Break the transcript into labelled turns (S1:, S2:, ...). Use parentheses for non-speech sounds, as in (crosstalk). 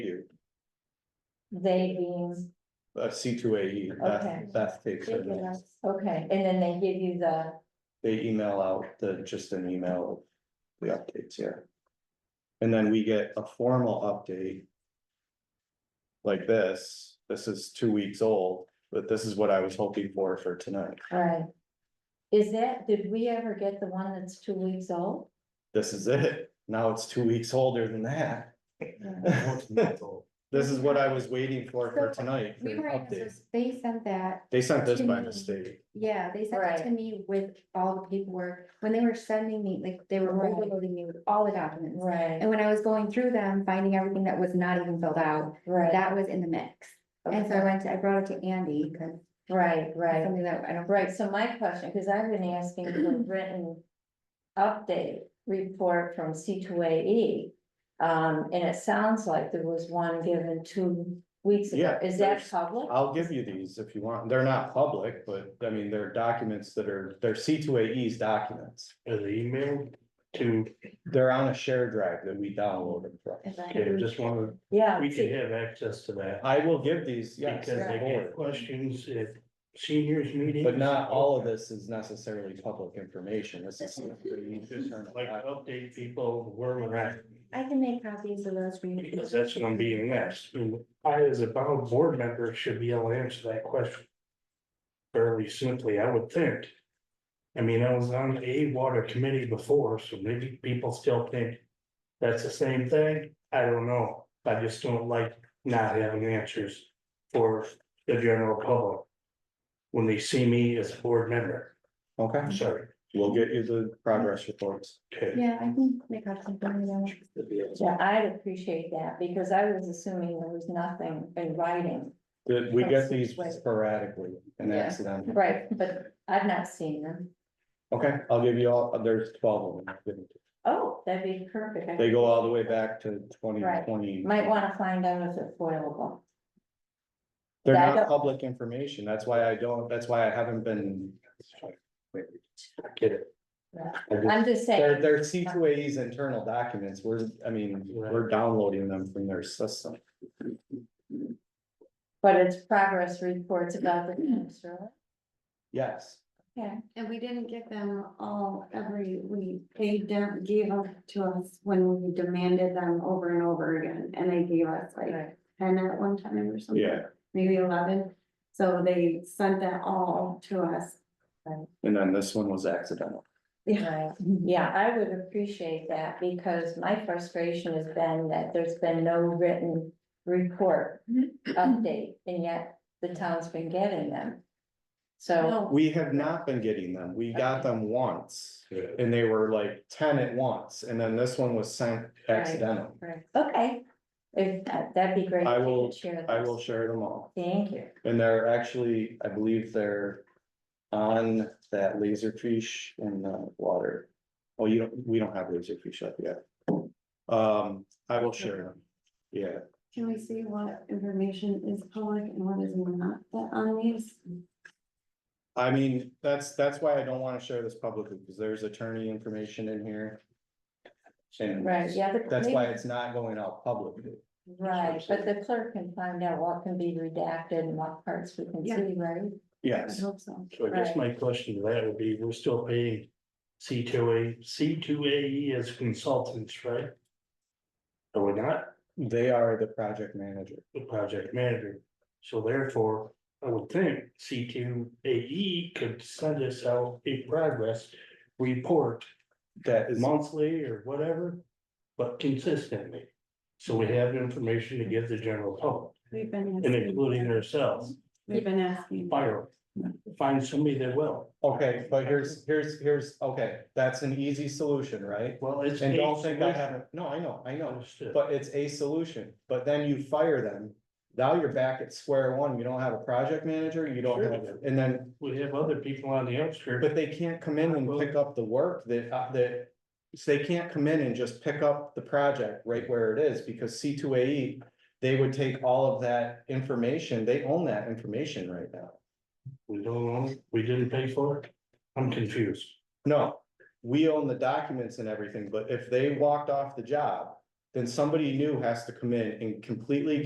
S1: they being,
S2: a C two A E,
S1: Okay.
S2: that, that takes
S1: okay,
S2: it.
S1: and then they give you the,
S2: They email out the, just an email, of the updates here. And then we get a formal update. Like this, this is two weeks old, but this is what I was hoping for for tonight.
S1: right? Is that, did we ever get the one that's two weeks
S2: (laughs)
S1: old?
S2: This is it. Now it's two weeks older than that. (laughs) This is what I was waiting for for tonight, for
S3: We
S2: an
S3: were, in
S2: update.
S3: this- they sent that,
S2: They sent this by
S3: to me.
S2: mistake.
S3: yeah, they sent it to
S1: Right.
S3: me with all the paperwork, when they were sending me, like, they were
S1: Right.
S3: overloading me with all the documents.
S1: Right,
S3: And when I was going through them, finding everything that was not even filled out,
S1: right.
S3: that was in the mix. And so I
S1: okay.
S3: went to, I brought it to Andy, because
S1: Right, right.
S3: something that I don't.
S1: Right, so my question, because I've been asking for written update report from C two A E. Um, and it sounds like there was one given two weeks ago.
S2: Yeah,
S1: Is that
S2: there's-
S1: public?
S4: Uh,
S2: I'll give you these if you want. They're not public, but I mean, they're documents that are, they're C two AE's documents.
S4: As an email to,
S2: They're on a share drive that we downloaded from.
S4: yeah,
S5: Mm-hmm.
S4: just wanted,
S1: Yeah.
S4: we can
S1: see-
S4: have access to that.
S2: I will give these, Uh, yes.
S4: Because they get questions at seniors meetings.
S2: But not all of this is necessarily public information. This is.
S4: Just Like to update people where we're at,
S3: I can make copies of those for you.
S4: because that's what I'm being asked. And I, as a bound board member, should be able to answer that question. Fairly simply, I would think. I mean, I was on a water committee before, so maybe people still think that's the same thing. I don't know. I just don't like not having answers for the general public. When they see me as a board member,
S2: Okay,
S4: I'm sorry.
S2: we'll get you the progress reports.
S4: Okay.
S3: Yeah, I can make copies of them.
S1: Yeah, I'd appreciate that because I was assuming there was nothing in writing.
S2: That we get these sporadically and
S1: Yeah.
S2: accidentally.
S1: Right, but I've not seen them.
S2: Okay, I'll give you all, there's twelve of them.
S1: Oh, that'd be perfect. I-
S2: They go all the way back to twenty twenty.
S1: Might want to find out if they're foilable.
S2: They're
S1: Yeah, I
S2: not
S1: don't-
S2: public information, that's why I don't, that's why I haven't been.
S4: Get it.
S1: Yeah.
S4: I just-
S1: I'm just
S2: They're,
S1: saying,
S2: they're C two A's internal documents, we're, I mean, we're downloading them from their system.
S1: but it's progress reports about the camps, right?
S2: Yes,
S1: Yeah,
S5: And we didn't get them all every week. They don't gave them to us when we demanded them over and over again, and they gave us like
S1: right,
S5: ten at one time or something.
S2: Yeah.
S5: Maybe eleven, so they sent that all to us.
S2: and then this one was accidental.
S1: right. Yeah, I would appreciate that because my frustration has been that there's been no written report update, and yet the town's been getting them. So,
S2: We have not been getting them, we got them once, and they were like ten at once, and then this one was sent accidental.
S1: right, okay, if, that- that'd be great.
S2: I
S1: if you
S2: will-
S1: could share
S2: I
S1: those.
S2: will share them all,
S1: Thank you.
S2: and they're actually, I believe they're on that laserfish in the water. Oh, you don't, we don't have laserfish up yet. Um, I will share them, yeah.
S5: Can we see what information is public and what is not that on these?
S2: I mean, that's, that's why I don't wanna share this publicly, because there's attorney information in here. And
S1: Right, yeah. the-
S2: that's why it's not going out publicly.
S1: Right, but the clerk can find out what can be redacted and what parts we can
S5: Yeah.
S1: see, right?
S5: I
S2: Yes,
S5: hope so.
S4: So I guess my question to that would be, we're still paying C two A, C two A E as consultants, right? Are we not
S2: they are the project manager.
S4: the project manager? So therefore, I would think C two A E could send us out a progress report
S2: That is,
S4: monthly or whatever, but consistently. So we have information to give the general public
S5: We've been.
S4: and
S5: asking-
S4: including ourselves,
S5: We've been asking.
S4: fire, find somebody that will.
S2: okay, but here's, here's, here's, okay, that's an easy solution, right?
S4: Well, it's.
S2: And don't think I haven't, no, I know, I know,
S4: Understood.
S2: but it's a solution, but then you fire them. Now you're back at square one, you don't have a project manager, you don't have, and then
S4: We have other people on the outskirts.
S2: But they can't come in and pick up the work that, uh, that, so they can't come in and just pick up the project right where it is, because C two A E. They would take all of that information, they own that information right now.
S4: We don't own, we didn't pay for it? I'm confused.
S2: No, we own the documents and everything, but if they walked off the job. Then somebody new has to come in and completely